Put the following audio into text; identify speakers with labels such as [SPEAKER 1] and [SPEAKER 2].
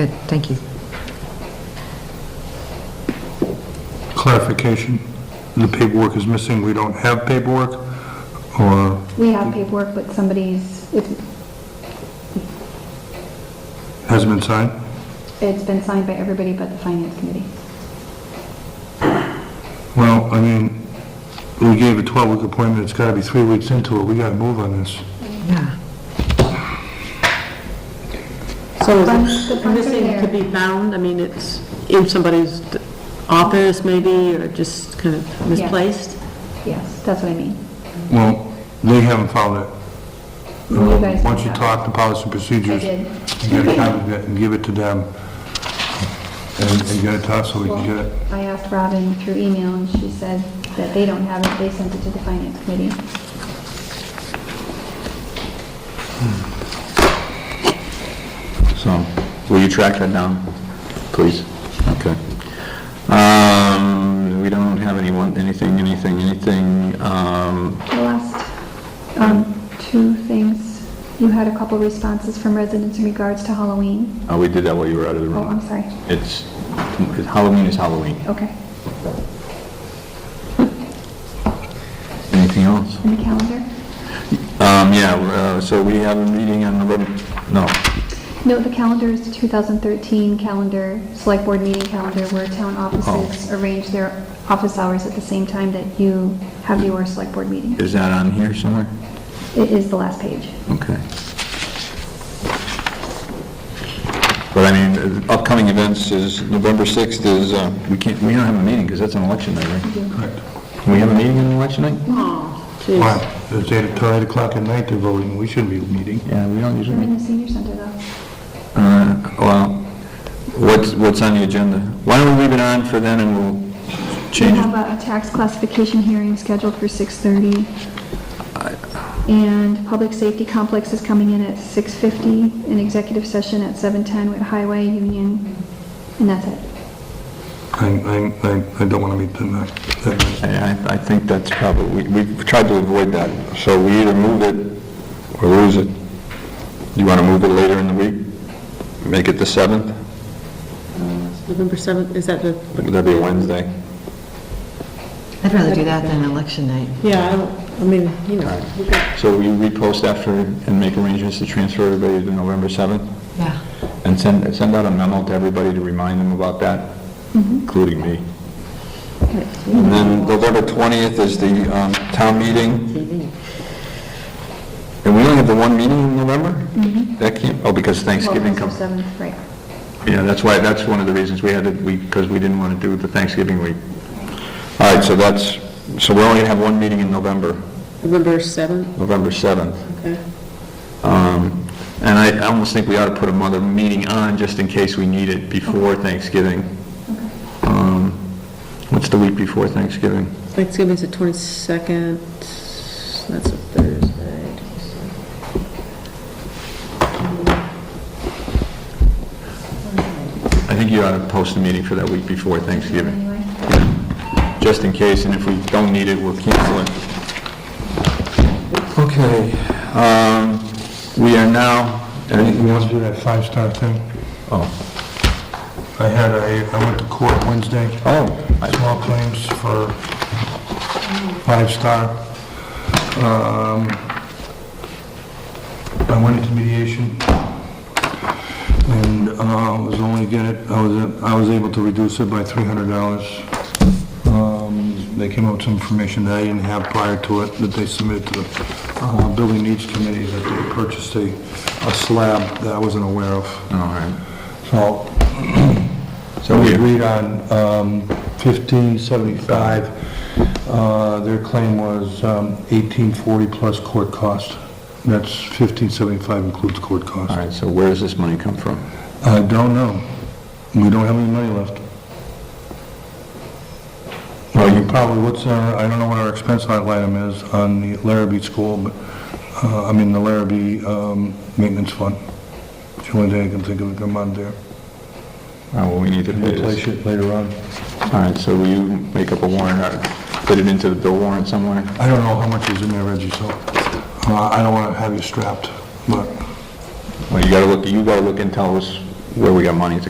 [SPEAKER 1] Good, thank you.
[SPEAKER 2] Clarification, the paperwork is missing, we don't have paperwork, or
[SPEAKER 3] We have paperwork, but somebody's, it's,
[SPEAKER 2] hasn't been signed?
[SPEAKER 3] it's been signed by everybody but the finance committee.
[SPEAKER 2] Well, I mean, we gave a 12-week appointment, it's gotta be three weeks into it, we gotta move on this.
[SPEAKER 1] Yeah.
[SPEAKER 4] So
[SPEAKER 3] Bunch-
[SPEAKER 4] is
[SPEAKER 3] the
[SPEAKER 4] it, and this
[SPEAKER 3] bunch are
[SPEAKER 4] thing could be found, I mean, it's in somebody's d- office maybe, or just kind of misplaced?
[SPEAKER 3] Yes, that's what I mean.
[SPEAKER 2] Well, they haven't followed it.
[SPEAKER 3] You guys
[SPEAKER 2] Once you
[SPEAKER 3] have it.
[SPEAKER 2] talk to policy and procedures,
[SPEAKER 3] I did.
[SPEAKER 2] you gotta copy that and give it to them, and and get it to us so we can get it.
[SPEAKER 3] I asked Robin through email and she said that they don't have it, they sent it to the finance committee.
[SPEAKER 5] So, will you track that down, please? Okay. Um, we don't have anyone, anything, anything, anything, um,
[SPEAKER 3] The last, um, two things, you had a couple responses from residents in regards to Halloween.
[SPEAKER 5] oh, we did that while you were out of the
[SPEAKER 3] Oh, I'm
[SPEAKER 5] room.
[SPEAKER 3] sorry,
[SPEAKER 5] It's, Halloween is Halloween.
[SPEAKER 3] okay,
[SPEAKER 5] Anything else?
[SPEAKER 3] in the calendar?
[SPEAKER 5] Um, yeah, uh, so we have a meeting on November, no,
[SPEAKER 3] No, the calendar is the 2013 calendar, select board meeting calendar, where town
[SPEAKER 5] Oh.
[SPEAKER 3] offices arrange their office hours at the same time that you have your select board meeting.
[SPEAKER 5] is that on here somewhere?
[SPEAKER 3] It is the last page.
[SPEAKER 5] Okay. But I mean, uh, upcoming events is, November 6th is, uh, we can't, we don't have a meeting, because that's an election night, right?
[SPEAKER 2] Correct.
[SPEAKER 5] Can we have a meeting on election night?
[SPEAKER 4] Oh, jeez.
[SPEAKER 2] Why? It's 8 till 8 o'clock at night they're voting, we shouldn't be meeting.
[SPEAKER 5] Yeah, we don't usually
[SPEAKER 3] We're
[SPEAKER 5] meet.
[SPEAKER 3] in the senior center, though.
[SPEAKER 5] Uh, Well, what's, what's on the agenda? Why don't we leave it on for then and we'll
[SPEAKER 3] We
[SPEAKER 5] change
[SPEAKER 3] have
[SPEAKER 5] it?
[SPEAKER 3] a a tax classification hearing scheduled for 6:30. And public safety complex is coming in at 6:50, an executive session at 7:10 with highway, union, and that's it.
[SPEAKER 2] I, I, I- I don't wanna meet tonight, that night.
[SPEAKER 5] I, I- I think that's probably, we- we've tried to avoid that, so we either move it or lose it. You want to move it later in the week? Make it the 7th?
[SPEAKER 4] November 7th, is that the,
[SPEAKER 5] Would that be Wednesday?
[SPEAKER 1] I'd rather do that than election night.
[SPEAKER 4] yeah, I don't, I mean, you know,
[SPEAKER 5] So we repost after and make arrangements to transfer everybody to November 7th?
[SPEAKER 1] Yeah.
[SPEAKER 5] And send, send out a memo to everybody to remind them about that, including me. And then November 20th is the um, town meeting. And we only have the one meeting in November? That can't, oh, because Thanksgiving
[SPEAKER 3] Well,
[SPEAKER 5] comes.
[SPEAKER 3] 7th, right.
[SPEAKER 5] Yeah, that's why, that's one of the reasons we had it, we, because we didn't want to do the Thanksgiving week. All right, so that's, so we're only going to have one meeting in November,
[SPEAKER 4] November 7th,
[SPEAKER 5] November 7th.
[SPEAKER 4] okay.
[SPEAKER 5] Um, And I I almost think we ought to put another meeting on just in case we need it before Thanksgiving. Um, What's the week before Thanksgiving?
[SPEAKER 4] Thanksgiving's the 22nd, that's a Thursday.
[SPEAKER 5] I think you ought to post a meeting for that week before Thanksgiving,
[SPEAKER 3] Anyway.
[SPEAKER 5] just in case, and if we don't need it, we'll cancel it. Okay, um, we are now,
[SPEAKER 2] You want to do that five-star thing?
[SPEAKER 5] oh,
[SPEAKER 2] I had a, I went to court Wednesday,
[SPEAKER 5] oh, I-
[SPEAKER 2] small claims for five-star. Um, I went into mediation, and uh, I was only get it, I was, I was able to reduce it by $300. Um, They came up with some information that I didn't have prior to it, that they submitted to the uh, Building Needs Committee, that they purchased a, a slab that I wasn't aware of.
[SPEAKER 5] all right.
[SPEAKER 2] So
[SPEAKER 5] So
[SPEAKER 2] we
[SPEAKER 5] we,
[SPEAKER 2] agreed on um, 1575. Uh, Their claim was um, 1840 plus court cost. That's 1575 includes court
[SPEAKER 5] all
[SPEAKER 2] cost.
[SPEAKER 5] right, so where does this money come from?
[SPEAKER 2] I don't know. We don't have any money left. Well, you probably, what's our, I don't know what our expense line item is on the Larrabee School, but, uh, I mean, the Larrabee um, Maintenance Fund. It's the only thing I can think of that come on there.
[SPEAKER 5] Oh, well, we need to pay this.
[SPEAKER 2] Replace it later on.
[SPEAKER 5] All right, so will you make up a warrant, or put it into the bill warrant somewhere?
[SPEAKER 2] I don't know how much is in there, Reggie, so uh, I don't want to have you strapped, but
[SPEAKER 5] Well, you gotta look, you gotta look and tell us where we got money to